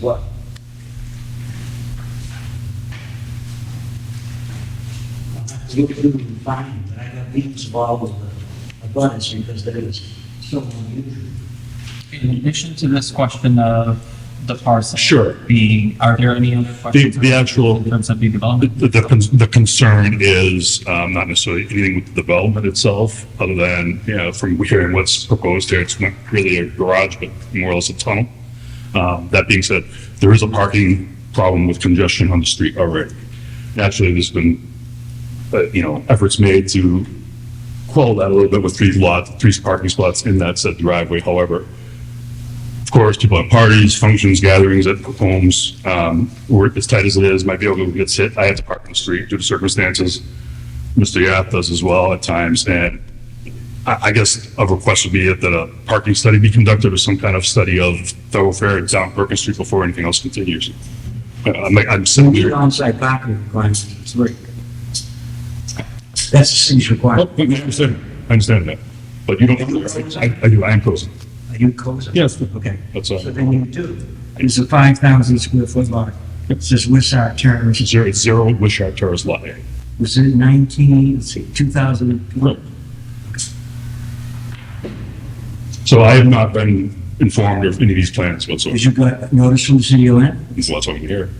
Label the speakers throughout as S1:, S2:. S1: What? You can find, but I got meetings with all of the abutters because there is so unusual.
S2: In addition to this question of the parcel.
S3: Sure.
S2: Being, are there any other questions?
S3: the actual-
S2: In terms of the
S3: The,
S2: development?
S3: the, con- the concern is, um, not necessarily anything with the development itself, other than, you know, from hearing what's proposed here, it's not really a garage, but more or less a tunnel. Um, that being said, there is a parking problem with congestion on the street already. Naturally, there's been, uh, you know, efforts made to quell that a little bit with three lots, three parking spots in that said driveway. However, of course, people have parties, functions, gatherings at homes, um, or as tight as it is, my vehicle gets hit, I have to park on the street due to circumstances. Mr. Yap does as well at times, and I, I guess a request would be that a parking study be conducted or some kind of study of thoroughfare down Perkins Street before anything else continues. Uh, I'm, I'm sitting
S1: Need
S3: here.
S1: onsite parking requirements, three. That's the city's
S3: Oh,
S1: requirement.
S3: I understand, I understand that, but you don't, I, I do, I am closing.
S1: Are you cozy?
S3: Yes.
S1: Okay.
S3: That's
S1: So
S3: all.
S1: then you do. It's a five thousand square foot lot. It says Wissar Terrace,
S3: Zero, it's zero Wishart Terrace Lot A.
S1: was in nineteen, let's see, two thousand and
S3: Right.
S1: one.
S3: So I have not been informed of any of these plans whatsoever.
S1: Did you got notice from the city of Lynn?
S3: That's what I'm here.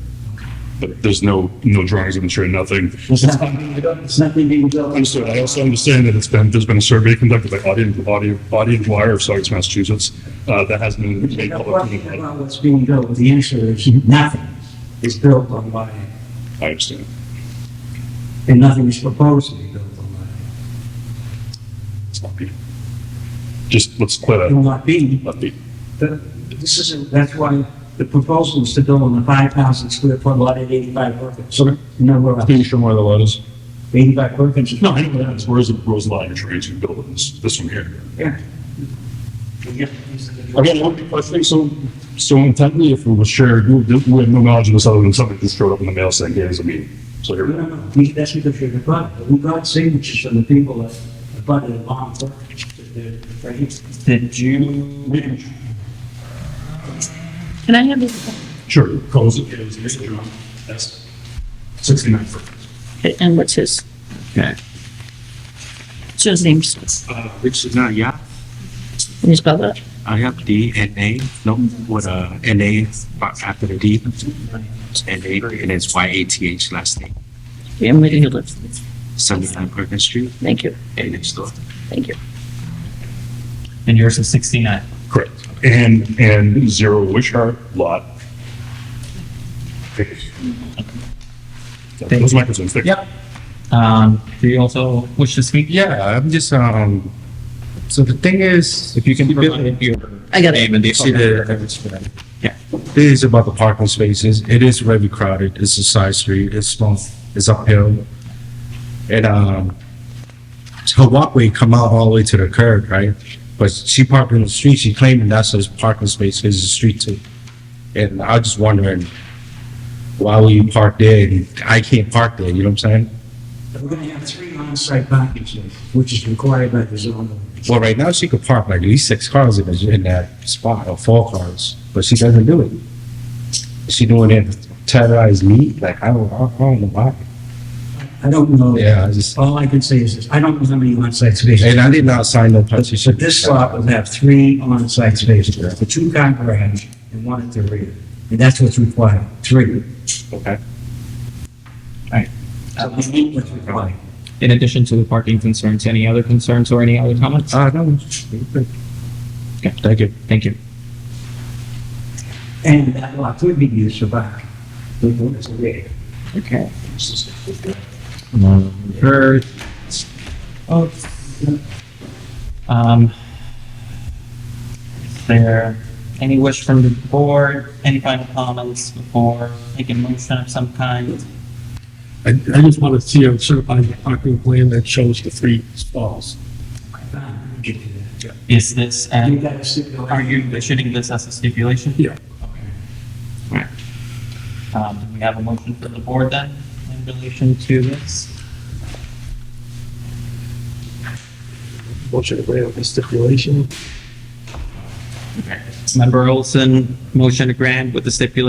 S3: But there's no, no drawings of insurance, nothing.
S1: There's nothing being built, there's nothing being built.
S3: Understood. I also understand that it's been, there's been a survey conducted by Audion, Audion, Audion Wire of Saugus, Massachusetts, uh, that has been made public.
S1: Nothing about what's being built, with the answer is nothing is built on lot A,
S3: I understand.
S1: and nothing is proposed to be built on lot A.
S3: It's not being. Just, let's clear
S1: It will
S3: that,
S1: not be,
S3: not be.
S1: but this isn't, that's why the proposal is to build on the five thousand square foot lot at eighty-five Perkins.
S3: Okay.
S1: Nowhere else,
S3: you show where the lot is?
S1: eighty-five Perkins is
S3: No, I know where that is. Where's the, where's the lot you're trying to build in this, this one here?
S1: Yeah.
S3: Again, one question, so, so intently, if it was shared, we we have no knowledge of this other than something just showed up in the mail saying, here's a meeting. So here
S1: No,
S3: we
S1: no,
S3: go.
S1: no, we- that's because you're the butt, we got signatures from the people that the butt and bomb for, for his
S2: Did you,
S4: Can I have this,
S3: Sure. Calls it, it was, here's the drum. That's sixty-nine for,
S4: and what's his?
S5: Okay.
S4: What's his name? Can
S5: Uh, which is not, yeah,
S4: you spell that?
S5: I have D N A, no, what, uh, N A, but after the D. It's N A, and it's Y A T H last name,
S4: Yeah, where do you live?
S5: seventy-nine Perkins Street,
S4: Thank you,
S5: and next door.
S4: thank you.
S2: and yours is 69?
S3: correct. And, and zero Wishart lot. That was my concern, thank you.
S2: Yep. Um, do you also wish to speak?
S6: Yeah, I'm just, um, so the thing is,
S2: If you can provide your
S4: I got it.
S2: name and the.
S6: See the- yeah, it is about the parking spaces. It is very crowded. It's a side street. It's small. It's uphill. And, um, her walkway come out all the way to the curb, right? But she parked in the street. She claiming that's her parking space. It's a street too. And I was just wondering, why will you park there? And I can't park there, you know what I'm saying?
S1: We're gonna have three on-site parking spaces, which is required by the zone.
S6: Well, right now she could park like at least six cars in, the- in that spot or four cars, but she doesn't do it. She doing it to terrorize me. Like I don't, I don't know why.
S1: I don't know.
S6: Yeah, I just
S1: All I can say is this, I don't know how many on-site spaces,
S6: and I did not sign no
S1: but
S6: petition.
S1: but this lot will have three on-site spaces, the two car garage and one at the rear. And that's what's required, three.
S6: Okay.
S1: So we need what's required.
S2: In addition to the parking concerns, any other concerns or any other comments?
S6: Uh, no.
S2: Okay.
S6: Thank you.
S2: Thank you.
S1: And that lot could be used for parking. The one at the rear.
S2: Okay. Number, oh, um, is there any wish from the board, any final comments before making motion of some kind?
S7: I, I just want to see a certified parking plan that shows the three stalls.
S1: Ah, you can do that.
S2: Is this,
S1: You
S2: and
S1: gotta stipulate-
S2: are you issuing this as a stipulation?
S7: Yeah.
S2: Alright. Um, do we have a motion from the board then in relation to this?
S7: Motion to grant with the stipulation.
S2: Member Olson, motion to grant with the stipulation